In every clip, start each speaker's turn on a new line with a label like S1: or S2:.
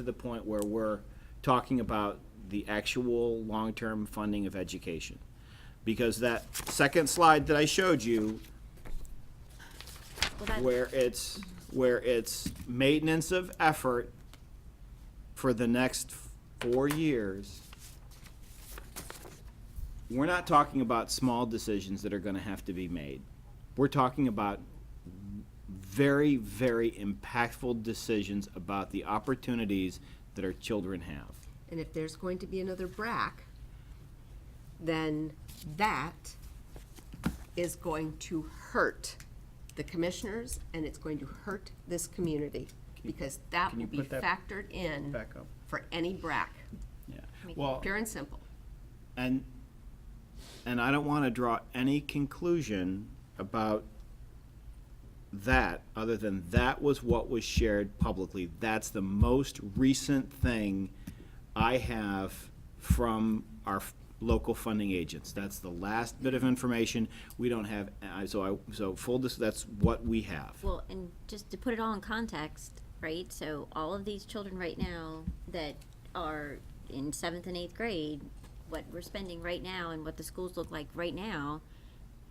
S1: to the point where we're talking about the actual long-term funding of education. Because that second slide that I showed you,
S2: Well, that-
S1: where it's, where it's maintenance of effort for the next four years, we're not talking about small decisions that are gonna have to be made. We're talking about very, very impactful decisions about the opportunities that our children have.
S3: And if there's going to be another BRAC, then that is going to hurt the commissioners and it's going to hurt this community because that
S1: can
S3: will
S1: you
S3: be
S1: put that
S3: factored in
S1: back up?
S3: for any BRAC,
S1: Yeah, well,
S3: pure and simple.
S1: and, and I don't want to draw any conclusion about that, other than that was what was shared publicly. That's the most recent thing I have from our f- local funding agents. That's the last bit of information. We don't have, I- so I, so full, dis- that's what we have.
S2: Well, and just to put it all in context, right? So all of these children right now that are in seventh and eighth grade, what we're spending right now and what the schools look like right now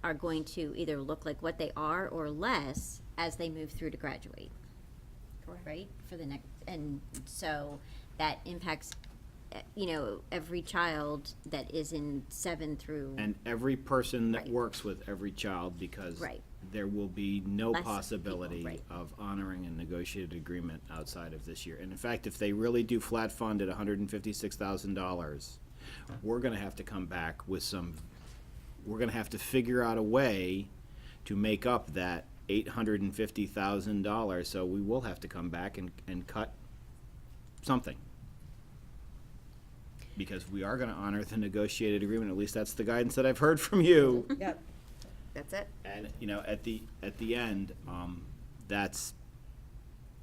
S2: are going to either look like what they are or less as they move through to graduate. Correct. Right? For the next, and so that impacts, eh, you know, every child that is in seven through.
S1: And every person that
S2: Right.
S1: works with every child, because
S2: Right.
S1: there will be no
S2: Less people,
S1: possibility
S2: right.
S1: of honoring a negotiated agreement outside of this year. And in fact, if they really do flat fund at hundred and fifty-six thousand dollars, we're gonna have to come back with some, we're gonna have to figure out a way to make up that eight hundred and fifty thousand dollars, so we will have to come back and, and cut something. Because we are gonna honor the negotiated agreement, at least that's the guidance that I've heard from you.
S3: Yep. That's it.
S1: And, you know, at the, at the end, um, that's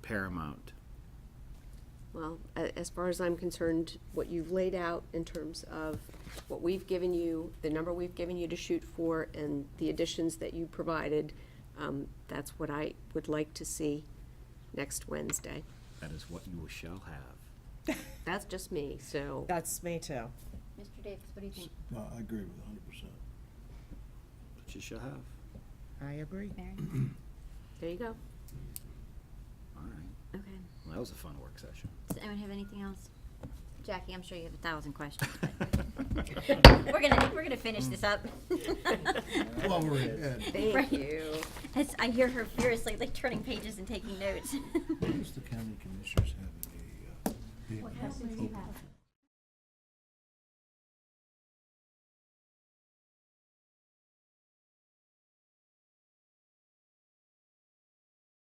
S1: paramount.
S3: Well, a- as far as I'm concerned, what you've laid out in terms of what we've given you, the number we've given you to shoot for, and the additions that you provided, um, that's what I would like to see next Wednesday.
S1: That is what you shall have.
S3: That's just me, so
S4: That's me too.
S2: Mr. Davis, what do you think?
S5: No, I agree with hundred percent.
S1: What you shall have.
S4: I agree.
S3: there you go.
S1: All right.
S2: Okay.
S1: Well, that was a fun work session.
S2: Does anyone have anything else? Jackie, I'm sure you have a thousand questions. but- We're gonna, we're gonna finish this up.
S5: Well, we're in Ed.
S2: Right.
S3: Thank you.
S2: As I hear her furiously like turning pages and taking notes.
S5: When does the county commissioners have a, uh, meeting?